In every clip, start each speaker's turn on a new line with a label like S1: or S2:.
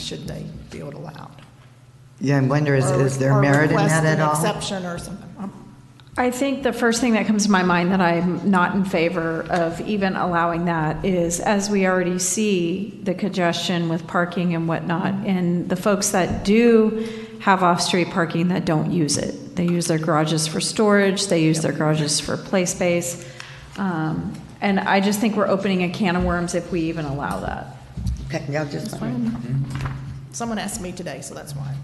S1: should they build allowed?
S2: Yeah, I wonder, is,
S1: Or-
S2: is there
S1: or
S2: merit in that
S1: request
S2: at
S1: an
S2: all?
S1: Exception or something. Um,
S3: I think the first thing that comes to my mind that I'm not in favor of even allowing that is, as we already see, the congestion with parking and whatnot, and the folks that do have off-street parking that don't use it. They use their garages for storage, they use their garages for play space. Um, And I just think we're opening a can of worms if we even allow that.
S2: Okay, yeah, just,
S1: Someone asked me today, so that's why.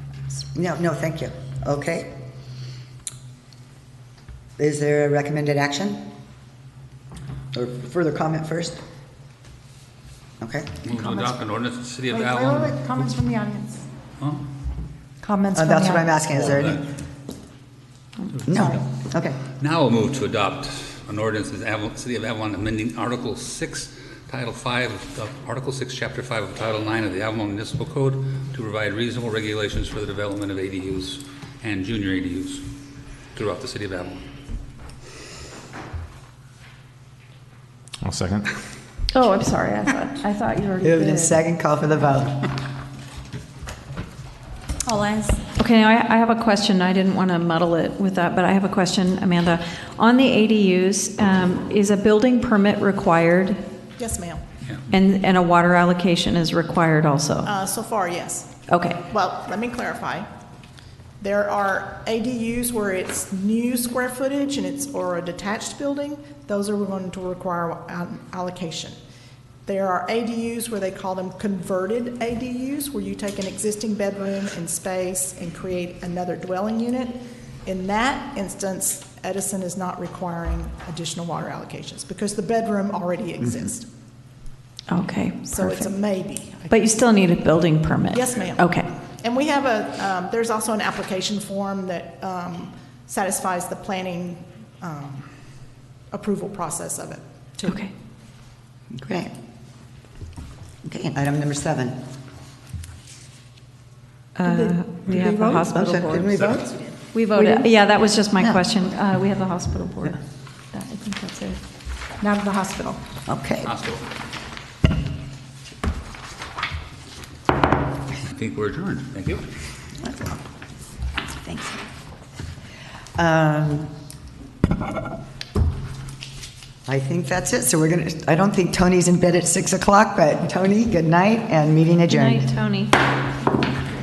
S2: no, no, thank you. Okay. Is there a recommended action? Or further comment first? Okay.
S4: Move to adopt an ordinance of the city of
S5: Wait, wait,
S4: Allen.
S5: wait, wait, Comments from the audience.
S4: Huh?
S5: Comments
S2: Uh,
S5: from the
S2: That's what I'm
S5: audience.
S2: asking, is there any? No, okay.
S4: Now we'll move to adopt an ordinance of the Avalon- city of Avalon amending Article 6, Title 5, of- Article 6, Chapter 5 of Title 9 of the Avalon Municipal Code to provide reasonable regulations for the development of ADUs and junior ADUs throughout the city of Avalon.
S6: I'll second.
S3: Oh, I'm sorry, I thought, I thought you already
S2: Moved in
S3: did.
S2: second, call for the vote.
S5: All eyes.
S3: Okay, I, I have a question. I didn't want to muddle it with that, but I have a question, Amanda. On the ADUs, um, is a building permit required
S1: Yes, ma'am.
S3: and, and a water allocation is required also?
S1: Uh, So far, yes.
S3: Okay,
S1: Well, let me clarify. There are ADUs where it's new square footage and it's, or a detached building, those are going to require an allocation. There are ADUs where they call them converted ADUs, where you take an existing bedroom and space and create another dwelling unit. In that instance, Edison is not requiring additional water allocations because the bedroom already exists.
S3: okay,
S1: So it's a
S3: perfect.
S1: maybe. I
S3: But you still need a building permit?
S1: Yes, ma'am.
S3: Okay,
S1: And we have a, um, there's also an application form that um, satisfies the planning um, approval process of it.
S3: okay.
S2: Great. Okay, item number seven.
S3: Uh, We have the hospital
S2: Didn't we
S3: board.
S2: vote?
S3: We voted, yeah, that was just my
S2: Yeah.
S3: question. Uh, We have the hospital board. That- I think that's it.
S1: Now to the hospital.
S2: Okay.
S4: Hospital. I think we're adjourned. Thank you.
S2: Thanks. Um, I think that's it. So we're going to, I don't think Tony's in bed at 6 o'clock, but Tony, good night and meeting
S3: Good
S2: adjourned.
S3: night, Tony.